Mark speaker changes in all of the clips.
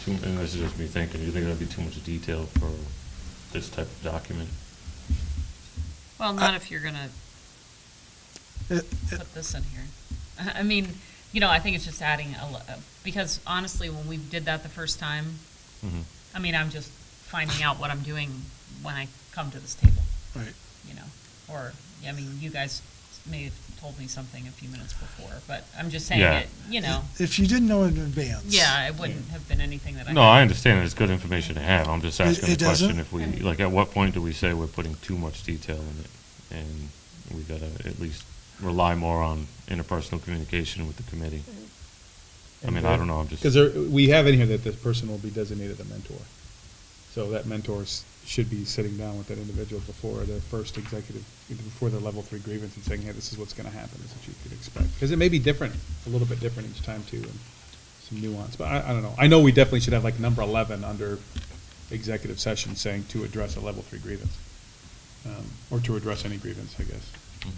Speaker 1: Too, and this is just me thinking, you think that'd be too much detail for this type of document?
Speaker 2: Well, not if you're gonna
Speaker 3: Uh,
Speaker 2: put this in here. I I mean, you know, I think it's just adding a, lo- uh, because honestly, when we did that the first time,
Speaker 1: Mhm.
Speaker 2: I mean, I'm just finding out what I'm doing when I come to this table,
Speaker 3: Right.
Speaker 2: you know? Or, I mean, you guys may have told me something a few minutes before, but I'm just saying
Speaker 1: Yeah.
Speaker 2: it, you know?
Speaker 3: If you didn't know in advance.
Speaker 2: Yeah, it wouldn't have been anything that I.
Speaker 1: No, I understand, it's good information to have, I'm just
Speaker 3: It-
Speaker 1: asking
Speaker 3: it
Speaker 1: the
Speaker 3: doesn't?
Speaker 1: question if we, like, at what point do we say we're putting too much detail in it? And we gotta at least rely more on interpersonal communication with the committee. I mean, I don't know, I'm just.
Speaker 4: Because there, we have in here that this person will be designated a mentor. So that mentor s- should be sitting down with that individual before their first executive, before their level three grievance and saying, hey, this is what's gonna happen, this is what you could expect. Because it may be different, a little bit different each time too, and some nuance, but I, I don't know. I know we definitely should have like number eleven under executive session saying to address a level three grievance. Um, Or to address any grievance, I guess.
Speaker 1: Mhm.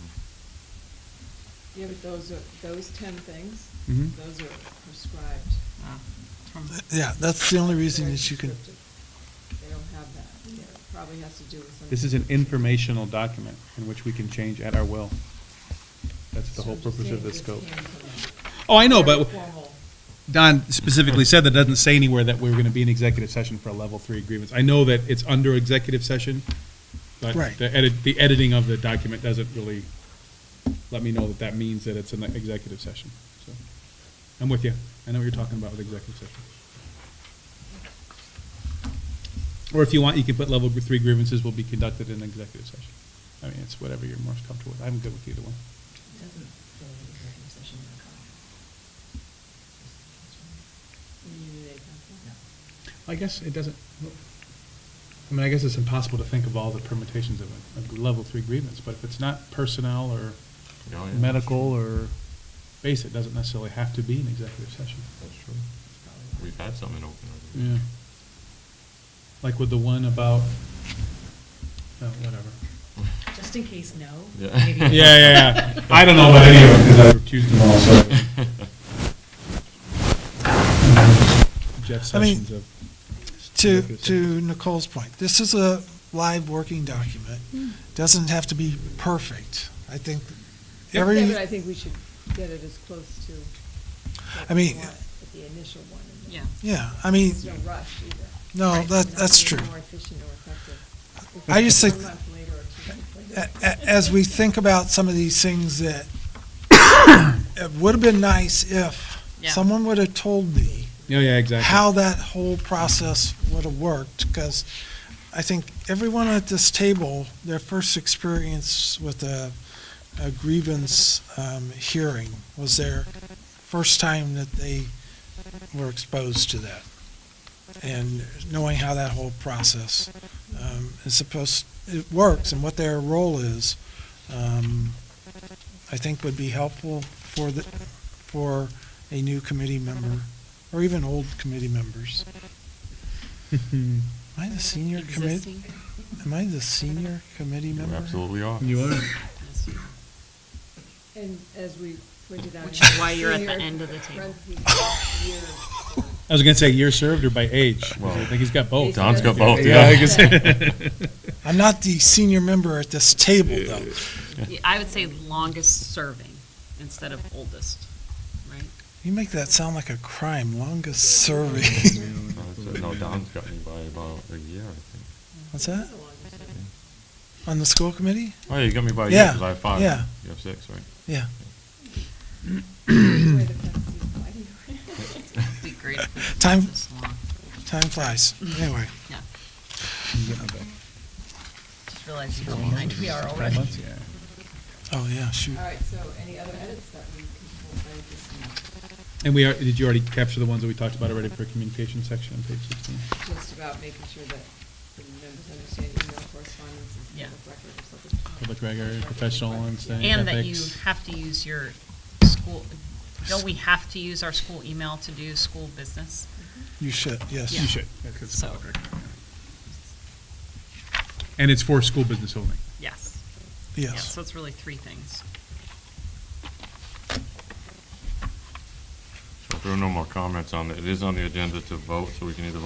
Speaker 5: Yeah, but those are, those ten things,
Speaker 3: Mm-hmm.
Speaker 4: Mhm.
Speaker 5: those are prescribed.
Speaker 2: Uh, from-
Speaker 3: Yeah, that's the only reason
Speaker 5: They're
Speaker 3: that you can,
Speaker 5: prescriptive. They don't have that. Yeah, It probably has to do with something.
Speaker 4: This is an informational document in which we can change at our will. That's the whole purpose of this scope. Oh, I know, but Don specifically said that doesn't say anywhere that we're going to be in executive session for a level three grievance. I know that it's under executive session, but
Speaker 3: Right.
Speaker 4: the edit, the editing of the document doesn't really let me know that that means that it's an executive session, so. I'm with you. I know what you're talking about with executive session. Or if you want, you can put level three grievances will be conducted in executive session. I mean, it's whatever you're most comfortable with. I'm good with either one. I guess it doesn't, I mean, I guess it's impossible to think of all the permutations of a, a level three grievance, but if it's not personnel or
Speaker 1: Yeah, yeah.
Speaker 4: medical or base, it doesn't necessarily have to be an executive session.
Speaker 1: That's true. We've had something open. already.
Speaker 4: Yeah. Like with the one about, oh, whatever.
Speaker 6: Just in case, no.
Speaker 1: Yeah.
Speaker 4: Yeah,
Speaker 6: Maybe-
Speaker 4: yeah, yeah. I don't know about any of them, because I refuse them all, so. Jeff
Speaker 3: I mean,
Speaker 4: Sessions of.
Speaker 3: to,
Speaker 4: Executive
Speaker 3: to Nicole's point, this is a live working document.
Speaker 5: Hmm.
Speaker 3: Doesn't have to be perfect. I think every,
Speaker 5: Yeah, but I think we should get it as close to. what
Speaker 3: I
Speaker 5: we
Speaker 3: mean-
Speaker 5: want with The initial one. and then-
Speaker 2: Yeah.
Speaker 3: yeah, I mean,
Speaker 5: There's no rush either.
Speaker 3: no,
Speaker 5: It's
Speaker 3: that,
Speaker 5: not
Speaker 3: that's
Speaker 5: gonna
Speaker 3: true.
Speaker 5: be More efficient or effective. if
Speaker 3: I just
Speaker 5: it's
Speaker 3: think- Uh,
Speaker 5: One month later or two months later.
Speaker 3: a- a- as we think about some of these things that, it would have been nice if
Speaker 2: Yeah.
Speaker 3: someone would have told me
Speaker 4: Yeah, yeah, exactly.
Speaker 3: how that whole process would have worked, because I think everyone at this table, their first experience with a, a grievance, um, hearing was their first time that they were exposed to that. And knowing how that whole process, um, is supposed, it works and what their role is, um, I think would be helpful for the, for a new committee member, or even old committee members. Am I the senior committee?
Speaker 2: Existing.
Speaker 3: Am I the senior committee
Speaker 1: You
Speaker 3: member?
Speaker 1: absolutely are.
Speaker 4: You are.
Speaker 5: And as we pointed out.
Speaker 2: Which
Speaker 5: in
Speaker 2: is why you're at the
Speaker 5: senior
Speaker 2: end of the table.
Speaker 5: parentheses, years, or-
Speaker 4: I was gonna say year served or by age, 'cause I
Speaker 1: Well,
Speaker 4: think he's got both.
Speaker 1: Don's got both,
Speaker 4: Yeah, I
Speaker 1: yeah.
Speaker 4: guess.
Speaker 3: I'm not the senior member at this table, though.
Speaker 2: Yeah, I would say longest serving instead of oldest, right?
Speaker 3: You make that sound like a crime, longest serving.
Speaker 1: Uh, No, Don's got me by about a year, I think.
Speaker 3: What's that? On the school committee?
Speaker 1: Oh, yeah, you got me by a year,
Speaker 3: Yeah,
Speaker 1: because I have five.
Speaker 3: yeah.
Speaker 1: You have six, right?
Speaker 3: Yeah.
Speaker 5: where the parentheses apply to.
Speaker 2: It'd be great if we could
Speaker 3: Time-
Speaker 2: do this long.
Speaker 3: Time flies. Anyway,
Speaker 2: Yeah,
Speaker 4: Five
Speaker 2: just realized you behind we are already.
Speaker 4: months, yeah.
Speaker 3: oh, yeah, shoot.
Speaker 5: All right, so any other edits that we can pull by this month?
Speaker 4: And we are, did you already capture the ones that we talked about already for communication section on page sixteen?
Speaker 5: Just about making sure that the members understand email correspondence is
Speaker 2: Yeah.
Speaker 5: public record or something.
Speaker 4: Public record, professional and stuff.
Speaker 2: And that you
Speaker 4: Ethics.
Speaker 2: have to use your school, don't we have to use our school email to do school business?
Speaker 3: You should, yes.
Speaker 2: Yeah.
Speaker 4: You should. yeah, 'cause it's
Speaker 2: So-
Speaker 4: public record, yeah. And it's for school business only.
Speaker 2: Yes. Yeah,
Speaker 3: Yes.
Speaker 2: So it's really three things.
Speaker 1: So there are no more comments on it, it is on the agenda to vote, so we can either vote